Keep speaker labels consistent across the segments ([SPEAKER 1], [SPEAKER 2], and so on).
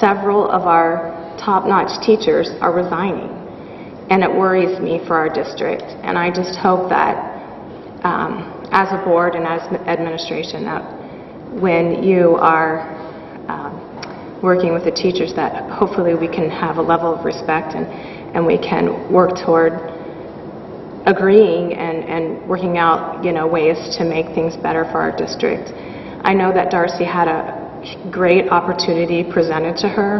[SPEAKER 1] several of our top-notch teachers are resigning, and it worries me for our district. And I just hope that, um, as a board and as administration, that when you are um, working with the teachers, that hopefully we can have a level of respect and and we can work toward agreeing and, and working out, you know, ways to make things better for our district. I know that Darcy had a great opportunity presented to her,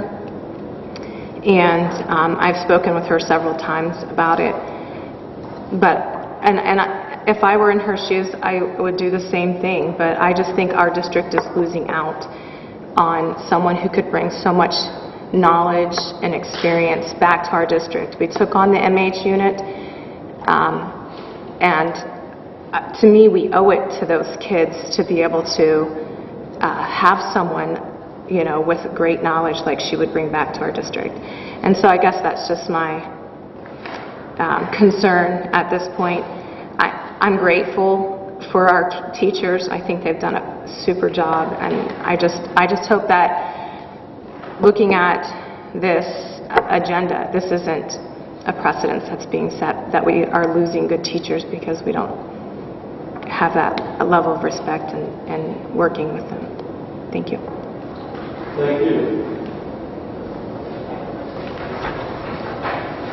[SPEAKER 1] and um, I've spoken with her several times about it. But, and, and I- if I were in her shoes, I would do the same thing, but I just think our district is losing out on someone who could bring so much knowledge and experience back to our district. We took on the MH unit, um, And uh, to me, we owe it to those kids to be able to uh, have someone, you know, with great knowledge like she would bring back to our district. And so I guess that's just my um, concern at this point. I- I'm grateful for our t- teachers. I think they've done a super job, and I just, I just hope that looking at this agenda, this isn't a precedence that's being set, that we are losing good teachers because we don't have that level of respect and and working with them. Thank you.
[SPEAKER 2] Thank you.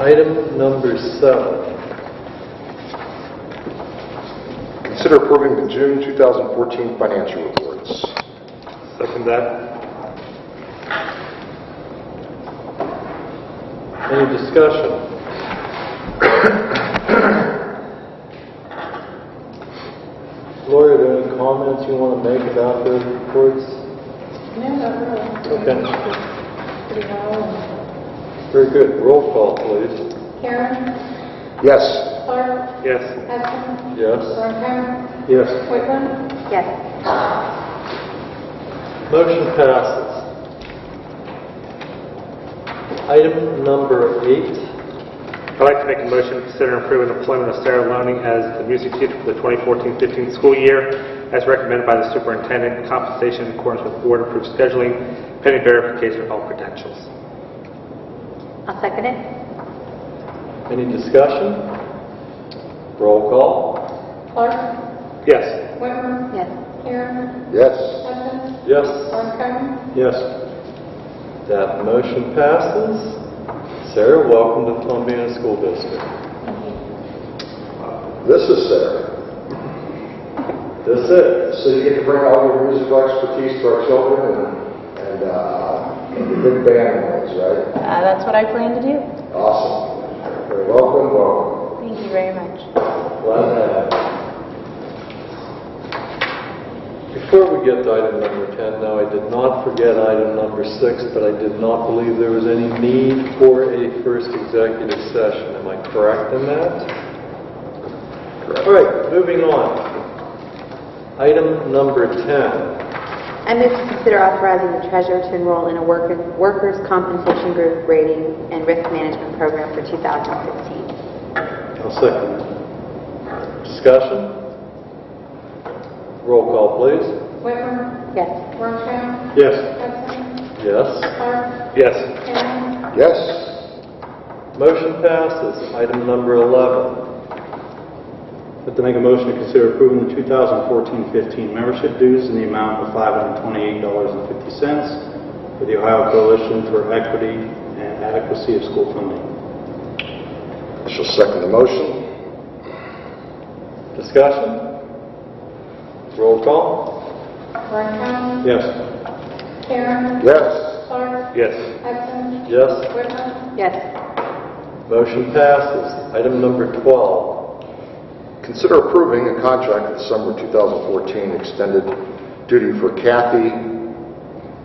[SPEAKER 2] Item number seven.
[SPEAKER 3] Consider approving the June 2014 financial reports.
[SPEAKER 2] Second that. Any discussion? Lori, are there any comments you want to make about those reports?
[SPEAKER 4] No, not really.
[SPEAKER 2] Okay,
[SPEAKER 4] Pretty well.
[SPEAKER 2] very good. Roll call, please.
[SPEAKER 4] Karen,
[SPEAKER 3] Yes.
[SPEAKER 4] Clark,
[SPEAKER 2] Yes.
[SPEAKER 4] Hudson,
[SPEAKER 2] Yes.
[SPEAKER 4] Ronco,
[SPEAKER 2] Yes.
[SPEAKER 4] Whitman.
[SPEAKER 1] Yes.
[SPEAKER 2] Motion passes. Item number eight.
[SPEAKER 5] I'd like to make a motion to consider approving the employment of Sarah Loney as the music teacher for the 2014-15 school year, as recommended by the superintendent, compensation in accordance with board-approved scheduling, pending verification of all credentials.
[SPEAKER 6] I'll second it.
[SPEAKER 2] Any discussion? Roll call.
[SPEAKER 4] Clark,
[SPEAKER 5] Yes.
[SPEAKER 4] Whitman.
[SPEAKER 6] Yes.
[SPEAKER 4] Karen,
[SPEAKER 3] Yes.
[SPEAKER 4] Hudson,
[SPEAKER 2] Yes.
[SPEAKER 4] Ronco.
[SPEAKER 2] Yes. That motion passes. Sarah, welcome to Columbia School District.
[SPEAKER 3] This is Sarah.
[SPEAKER 2] That's it.
[SPEAKER 3] So you get to bring all your musical expertise to our children and, and uh, and the big band noise, right?
[SPEAKER 6] Uh, That's what I plan to do.
[SPEAKER 3] Awesome. Welcome, welcome.
[SPEAKER 6] Thank you very much.
[SPEAKER 2] Glad to have you. Before we get to item number 10, now, I did not forget item number six, but I did not believe there was any need for a first executive session. Am I correct in that? All right, moving on. Item number 10.
[SPEAKER 6] I move to consider authorizing the treasurer to enroll in a worker- workers' compensation group rating and risk management program for 2016.
[SPEAKER 2] I'll second that. Discussion? Roll call, please.
[SPEAKER 4] Whitman,
[SPEAKER 6] Yes.
[SPEAKER 4] Ronco,
[SPEAKER 2] Yes.
[SPEAKER 4] Hudson,
[SPEAKER 2] Yes.
[SPEAKER 4] Clark,
[SPEAKER 5] Yes.
[SPEAKER 4] Karen,
[SPEAKER 3] Yes.
[SPEAKER 2] Motion passes. Item number 11.
[SPEAKER 7] I'd like to make a motion to consider approving the 2014-15 membership dues in the amount of $528.50 for the Ohio Coalition for Equity and Adequacy of School Funding.
[SPEAKER 3] I shall second the motion.
[SPEAKER 2] Discussion? Roll call?
[SPEAKER 4] Ronco,
[SPEAKER 7] Yes.
[SPEAKER 4] Karen,
[SPEAKER 3] Yes.
[SPEAKER 4] Clark,
[SPEAKER 5] Yes.
[SPEAKER 4] Hudson,
[SPEAKER 2] Yes.
[SPEAKER 4] Whitman.
[SPEAKER 6] Yes.
[SPEAKER 2] Motion passes. Item number 12.
[SPEAKER 3] Consider approving a contract for the summer 2014 extended duty for Kathy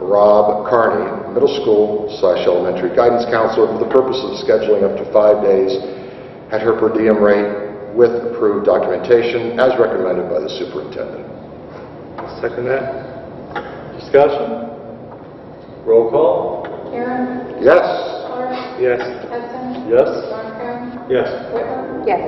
[SPEAKER 3] Rob Carney, middle school slash elementary guidance counselor for the purpose of scheduling up to five days at her per diem rate with approved documentation as recommended by the superintendent.
[SPEAKER 5] Second that?
[SPEAKER 2] Discussion? Roll call?
[SPEAKER 4] Karen,
[SPEAKER 3] Yes.
[SPEAKER 4] Clark,
[SPEAKER 5] Yes.
[SPEAKER 4] Hudson,
[SPEAKER 2] Yes.
[SPEAKER 4] Ronco,
[SPEAKER 7] Yes.
[SPEAKER 4] Whitman.
[SPEAKER 6] Yes.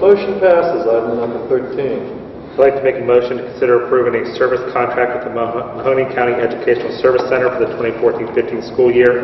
[SPEAKER 2] Motion passes, item number 13.
[SPEAKER 5] I'd like to make a motion to consider approving a service contract with the Maho- Mahoney County Educational Service Center for the 2014-15 school year